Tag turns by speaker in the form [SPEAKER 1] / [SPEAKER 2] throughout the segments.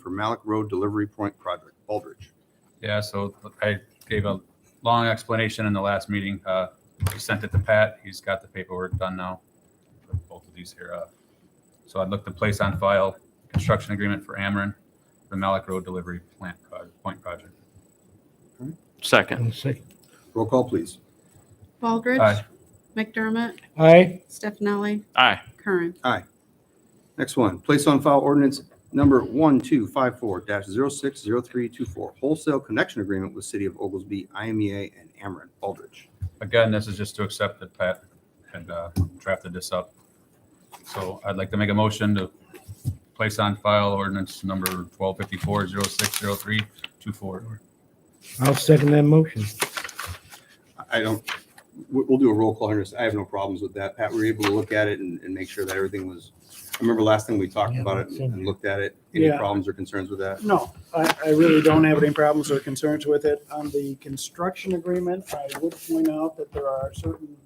[SPEAKER 1] for Malik Road Delivery Point Project, Aldridge.
[SPEAKER 2] Yeah, so I gave a long explanation in the last meeting. Uh, we sent it to Pat. He's got the paperwork done now. for Both of these here. Uh, So I'd look to place on file construction agreement for Ameren, the Malik Road Delivery Plant, Pro- Point Project.
[SPEAKER 3] Second.
[SPEAKER 4] I'll say
[SPEAKER 1] Roll call, please.
[SPEAKER 5] Baldridge.
[SPEAKER 2] Aye.
[SPEAKER 5] McDermott.
[SPEAKER 4] aye,
[SPEAKER 5] Stefani.
[SPEAKER 3] Aye.
[SPEAKER 5] Curran.
[SPEAKER 1] Next one, place on file ordinance number 1254-060324, wholesale connection agreement with City of Oglesby, IMEA, and Ameren, Aldridge.
[SPEAKER 2] Again, this is just to accept that Pat had uh, drafted this up. So I'd like to make a motion to place on file ordinance number twelve fifty-four zero six zero three two four.
[SPEAKER 4] I'll second that motion.
[SPEAKER 1] I I don't, we- we'll do a roll call here. I have no problems with that. Pat, were you able to look at it and, and make sure that everything was, I remember last time we talked
[SPEAKER 4] Yeah,
[SPEAKER 1] about it
[SPEAKER 4] it's in
[SPEAKER 1] and looked at it. Any
[SPEAKER 6] Yeah.
[SPEAKER 1] problems or concerns with that?
[SPEAKER 6] No, I, I really don't have any problems or concerns with it. On the construction agreement, I would point out that there are certain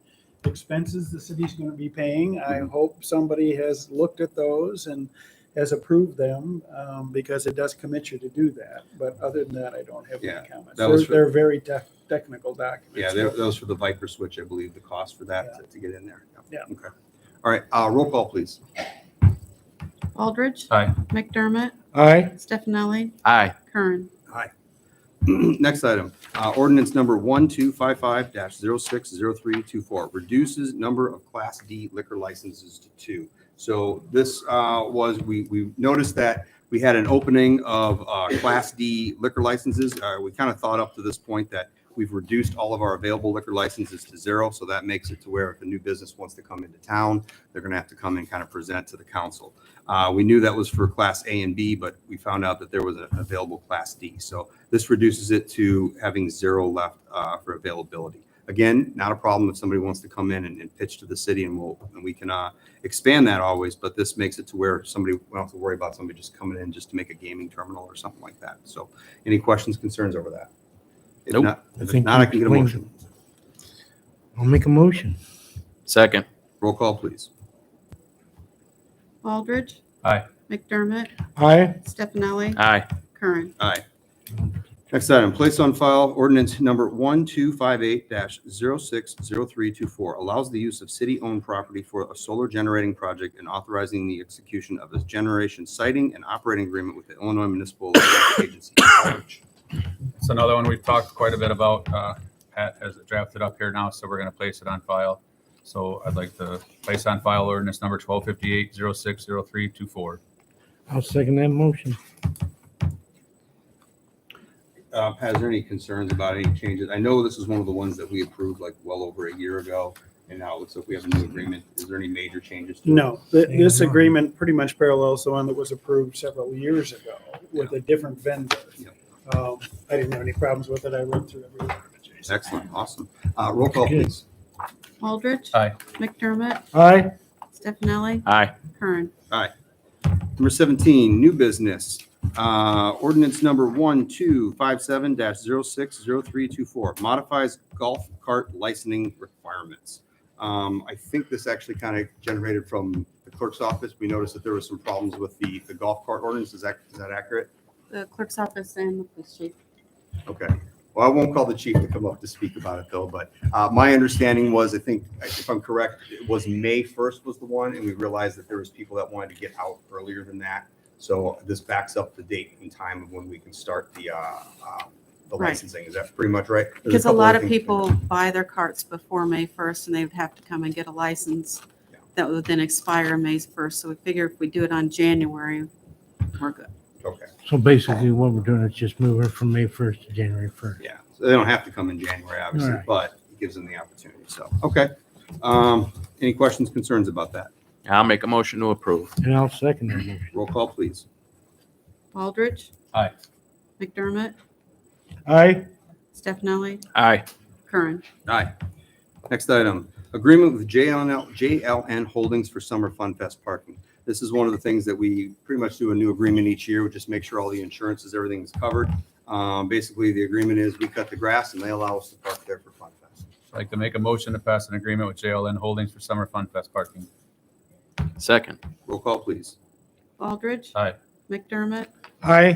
[SPEAKER 6] expenses the city's going to be paying. I
[SPEAKER 1] Mm-hmm.
[SPEAKER 6] hope somebody has looked at those and has approved them um, because it does commit you to do that. But other than that, I don't have
[SPEAKER 1] Yeah,
[SPEAKER 6] any comments.
[SPEAKER 1] that was
[SPEAKER 6] They're,
[SPEAKER 1] for-
[SPEAKER 6] they're very tech, technical
[SPEAKER 1] Yeah,
[SPEAKER 6] documents.
[SPEAKER 1] that that was for the Viper switch, I believe, the cost for that
[SPEAKER 6] Yeah.
[SPEAKER 1] to- to get in there.
[SPEAKER 6] Yeah.
[SPEAKER 1] Okay. All right, uh, roll call, please.
[SPEAKER 5] Baldridge.
[SPEAKER 2] Aye.
[SPEAKER 5] McDermott.
[SPEAKER 4] Aye,
[SPEAKER 5] Stefani.
[SPEAKER 3] Aye.
[SPEAKER 5] Curran.
[SPEAKER 1] Next item, uh, ordinance number 1255-060324, reduces number of Class D liquor licenses to two. So this uh, was, we, we noticed that we had an opening of uh, Class D liquor licenses. Uh, We kind of thought up to this point that we've reduced all of our available liquor licenses to zero, so that makes it to where if a new business wants to come into town, they're going to have to come and kind of present to the council. Uh, We knew that was for Class A and B, but we found out that there was an available Class D. So this reduces it to having zero left uh, for availability. Again, not a problem if somebody wants to come in and and pitch to the city and we'll, and we can uh, expand that always, but this makes it to where somebody, we don't have to worry about somebody just coming in just to make a gaming terminal or something like that. So any questions, concerns over that? If
[SPEAKER 3] Nope.
[SPEAKER 1] not,
[SPEAKER 4] I
[SPEAKER 1] if
[SPEAKER 4] think
[SPEAKER 1] not, I can get a
[SPEAKER 4] we-
[SPEAKER 1] motion.
[SPEAKER 4] I'll make a motion.
[SPEAKER 3] Second.
[SPEAKER 1] Roll call, please.
[SPEAKER 5] Baldridge.
[SPEAKER 2] Aye.
[SPEAKER 5] McDermott.
[SPEAKER 4] Aye,
[SPEAKER 5] Stefani.
[SPEAKER 3] Aye.
[SPEAKER 5] Curran.
[SPEAKER 1] Aye. Next item, place on file ordinance number 1258-060324 allows the use of city-owned property for a solar generating project and authorizing the execution of a generation siting and operating agreement with the Illinois Municipal Electric Agency.
[SPEAKER 2] It's another one we've talked quite a bit about. Uh, Pat has it drafted up here now, so we're going to place it on file. So I'd like to place on file ordinance number twelve fifty-eight zero six zero three two four.
[SPEAKER 4] I'll second that motion.
[SPEAKER 1] Uh, Pat, is there any concerns about any changes? I know this is one of the ones that we approved like well over a year ago, and now it looks like we have a new agreement. Is there any major changes? to it?
[SPEAKER 6] No, th- this agreement pretty much parallels the one that was approved several years ago with a different vendor.
[SPEAKER 1] Yeah.
[SPEAKER 6] Um, I didn't have any problems with it. I read through every one of it, Jason.
[SPEAKER 1] Excellent, awesome. Uh, Roll call,
[SPEAKER 4] Good.
[SPEAKER 1] please.
[SPEAKER 5] Baldridge.
[SPEAKER 2] Aye.
[SPEAKER 5] McDermott.
[SPEAKER 4] Aye,
[SPEAKER 5] Stefani.
[SPEAKER 3] Aye.
[SPEAKER 5] Curran.
[SPEAKER 1] Number 17, new business. Uh, Ordinance number 1257-060324 modifies golf cart licensing requirements. Um, I think this actually kind of generated from the clerk's office. We noticed that there was some problems with the, the golf cart ordinance. Is that, is that accurate?
[SPEAKER 5] The clerk's office and the police chief.
[SPEAKER 1] Okay. Well, I won't call the chief to come up to speak about it though, but uh, my understanding was, I think, if I'm correct, it was May 1st was the one, and we realized that there was people that wanted to get out earlier than that. So this backs up the date and time of when we can start the, uh, uh, the
[SPEAKER 5] Right.
[SPEAKER 1] licensing. Is that pretty much right? There's
[SPEAKER 5] Because a
[SPEAKER 1] couple
[SPEAKER 5] lot
[SPEAKER 1] other
[SPEAKER 5] of
[SPEAKER 1] things-
[SPEAKER 5] people buy their carts before May 1st and they would have to come and get a license
[SPEAKER 1] Yeah.
[SPEAKER 5] that would then expire May 1st. So we figure if we do it on January, we're good.
[SPEAKER 1] Okay,
[SPEAKER 4] so basically what we're doing is just moving from May first to January first.
[SPEAKER 1] yeah. So they don't have to come in January, obviously,
[SPEAKER 4] Right.
[SPEAKER 1] but it gives them the opportunity. So, okay. Um, Any questions, concerns about that?
[SPEAKER 3] I'll make a motion to approve.
[SPEAKER 4] And I'll second that motion.
[SPEAKER 1] Roll call, please.
[SPEAKER 5] Baldridge.
[SPEAKER 2] Aye.
[SPEAKER 5] McDermott.
[SPEAKER 4] Aye,
[SPEAKER 5] Stefani.
[SPEAKER 3] Aye.
[SPEAKER 5] Curran.
[SPEAKER 1] Aye. Next item, agreement with JLN, JLN Holdings for Summer Fun Fest parking. This is one of the things that we pretty much do a new agreement each year, we just make sure all the insurances, everything is covered. Um, basically, the agreement is we cut the grass and they allow us to park there for Fun Fest.
[SPEAKER 2] I'd like to make a motion to pass an agreement with JLN Holdings for Summer Fun Fest parking.
[SPEAKER 3] Second.
[SPEAKER 1] Roll call, please.
[SPEAKER 5] Baldridge.
[SPEAKER 2] Aye.
[SPEAKER 5] McDermott.
[SPEAKER 4] aye.